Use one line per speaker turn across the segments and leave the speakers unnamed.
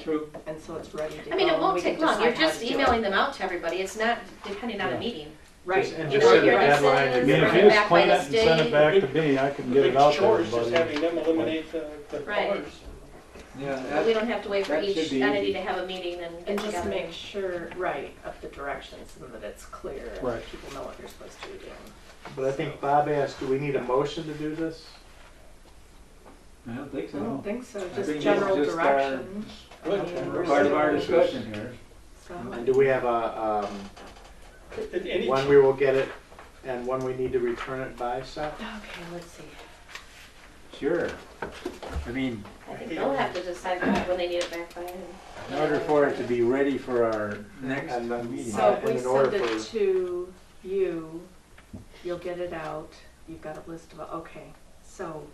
True.
and so it's ready to go.
I mean, it
We
won't
can
take long,
decide
you're
how to
just
do it.
emailing them out to everybody, it's not depending on
Yeah.
a meeting.
Right.
Just- And
You
just
know,
set a
you're right.
deadline
I mean,
and get
if
it
you
just
back by
clean
the
it and send it
state-
back to me, I can get it
The
out
big
to
chore is just
everybody.
having them eliminate the, the
Right.
colors.
Yeah,
But we don't have to wait for
that
each
should be
entity
easy.
to have a meeting and
And
get
just
together.
make sure, right, of the directions and that it's clear and
Right.
people know what you're supposed to be doing.
But I think Bob asked, do we need a motion to do this?
I don't think
I don't
so.
think so,
think
just
it's
general
just our-
direction. I
Good.
mean, we're
Part of our
still-
discussion here.
so-
And do we have a,
At
um,
any
when we will get it and when we need to return it by, Seth?
Okay, let's see.
Sure. I mean,
I think they'll have to decide when they need it back by. and-
in order for it to be ready for our next
And then-
meeting.
So if
And
we
in order
send it
for-
to you, you'll get it out, you've got a list of, okay, so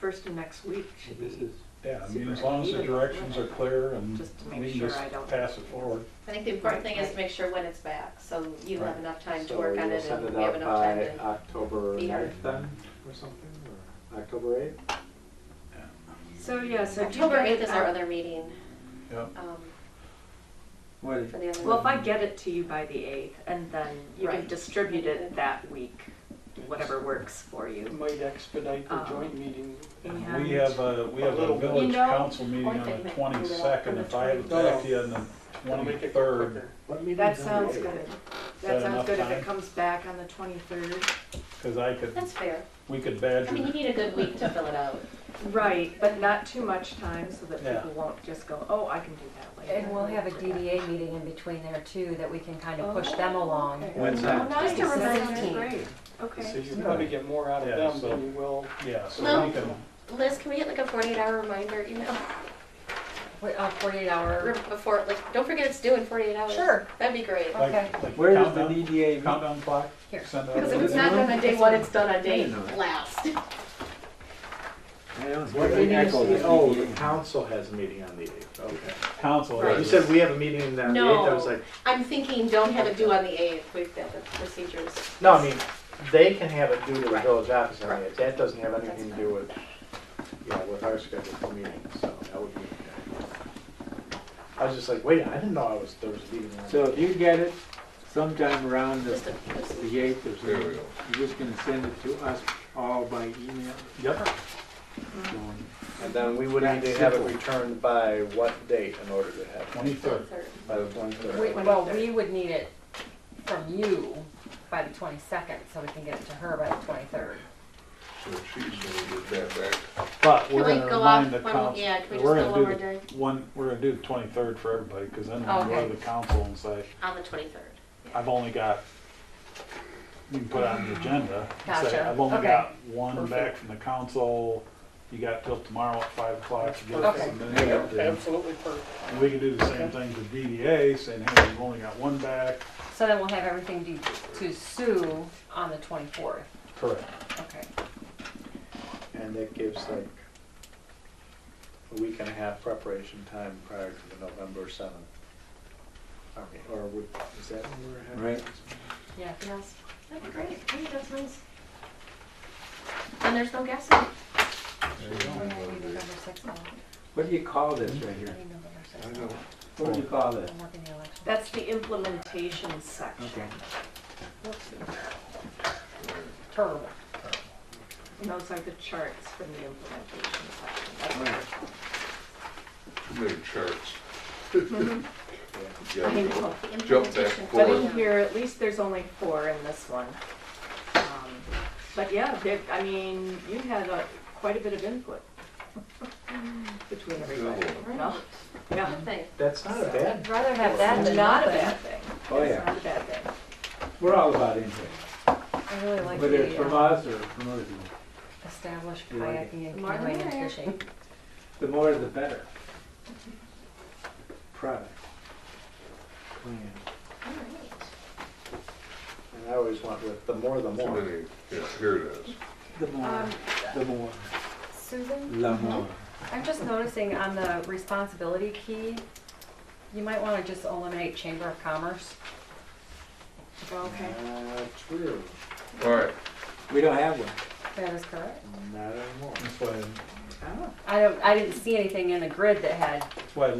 first of next week should be,
Yeah, I mean, as long as the directions are clear and
just to
we
make
can
sure
just
I don't.
pass it forward.
I think the important thing is to make sure when it's back, so you have
Right.
enough time to
So
work
we
on
will
it
send
and
it
we have
out
enough time
by uh,
to.
October
be here.
ninth then, or something, or October eighth?
So, yeah, so. do you
October
get it
eighth is our
out-
other meeting.
Yeah.
um,
What,
For the other.
Well, if I get it to you by the eighth, and then you can
Right.
distribute it that week, whatever works for you.
Might expedite the
Um,
joint meeting.
And-
We have uh, a, we have a
You
village
know,
council meeting
I
on
think they can do
the
that
twenty-second,
on
if I have it
the
back to you on the
Wanna make it
twenty-third,
quicker.
What meeting's on
That
the
sounds
eighth?
good. That
that
sounds
enough
good if it
time?
comes back on the twenty-third.
cause I could,
That's fair.
we could
I mean, you
badger.
need a good week to fill it out.
Right, but not too much time so that
Yeah.
people won't just go, oh, I can do that later.
And we'll have a DDA meeting in between there too, that we can kind of push them along.
Oh, Okay.
when's
Oh,
that?
nice,
Nice.
that's
Seventeenth.
great,
So
okay.
you probably get more out
Yeah,
of them
so-
than you will.
Yeah, so
Well-
we can,
Liz, can we get like a forty-eight hour reminder email
Wait, uh, forty-eight hour,
Re- before, like, don't forget it's due in forty-eight hours?
Sure.
That'd be great.
like,
Okay.
like
Where does the
countdown,
DDA meet?
countdown clock?
Here.
Send out
Because if
the-
it's not done on day one, it's done on day
No, no.
last.
I don't
What
hear any
meeting is
echo of
the,
the
oh, the
DDA.
council has a meeting on the eighth, okay.
Council.
Right.
You
does.
said we have a meeting on the eighth, I was
No.
like,
I'm thinking don't have it due on the eighth, we've got the procedures.
no, I mean, they can have it due to the
Right.
village office on
Right.
the eighth, that doesn't have anything to
That's
do with, yeah, with our schedule for meetings, so that would be. I was just like, wait, I didn't know I was, there was a meeting on.
So if you get it sometime around the
Just a, just a-
the eighth or something, you're just gonna send it to us all by email?
Yep.
So-
And then we would need to have it returned by what date in order to have it?
Twenty-third.
third.
By the twenty-third?
we- well, we would need it from you by the twenty-second, so we can get it to her by the twenty-third.
But
Can
we're
we
gonna
go
remind
off
the
one-
council.
yeah, can we
we're
just go
gonna
one
do
more
the- One, we're gonna do the twenty-third for everybody, cause then we can go
Okay.
to the council and say,
on the twenty-third.
I've only got, you can put it on the agenda. and say,
Gotcha.
I've only
Okay.
got one
Perfect.
back from the council, you got till tomorrow at five o'clock to get
Okay.
it submitted.
Absolutely perfect.
And we can do the same thing to DDA, saying, hey, we've only got one back.
So then we'll have everything due to Sue on the twenty-fourth,
Correct.
okay.
And that gives like a week and a half preparation time prior to the November seventh. Army, or would, is that when we're having?
Right.
Yeah.
Yes, that'd be great, I think that sounds. And there's no gas in it.
We're having November sixth, now.
What do you call this right
I
here?
need November
I
sixth.
know.
What do you call this?
I'm working the election.
That's the implementation section.
Okay.
Terrible.
And those are the charts from the implementation section.
All right.
Made charts.
Mm-hmm. I
Yeah,
mean,
go-
well,
The
Jump back
implementation.
But
forward.
in here, at least there's only four in this one. Um, But yeah, there- I mean, you had a- quite a bit of input between everybody. No? Yeah.
Good thing.
That's not a bad,
I'd rather have that
It's
than
not a
nothing.
bad thing.
Oh,
It's
yeah.
not a bad thing.
We're all about input,
I really like
whether it's
the
from
um,
us or from other people.
established
You like it?
kayaking and
More than
canoeing and
there.
fishing.
The more the better. Product.
plan.
All right.
And I always went with the more the
Too
more.
many, yeah, here it is.
The more,
Um,
the more,
Susan?
la more.
I'm just noticing on the responsibility key, you might want to just eliminate Chamber of Commerce.
Okay.
Uh, true,
All right,
We don't have one.
That is correct.
not anymore.
That's why,
Ah.
I don't, I didn't see anything in the grid that had
that's why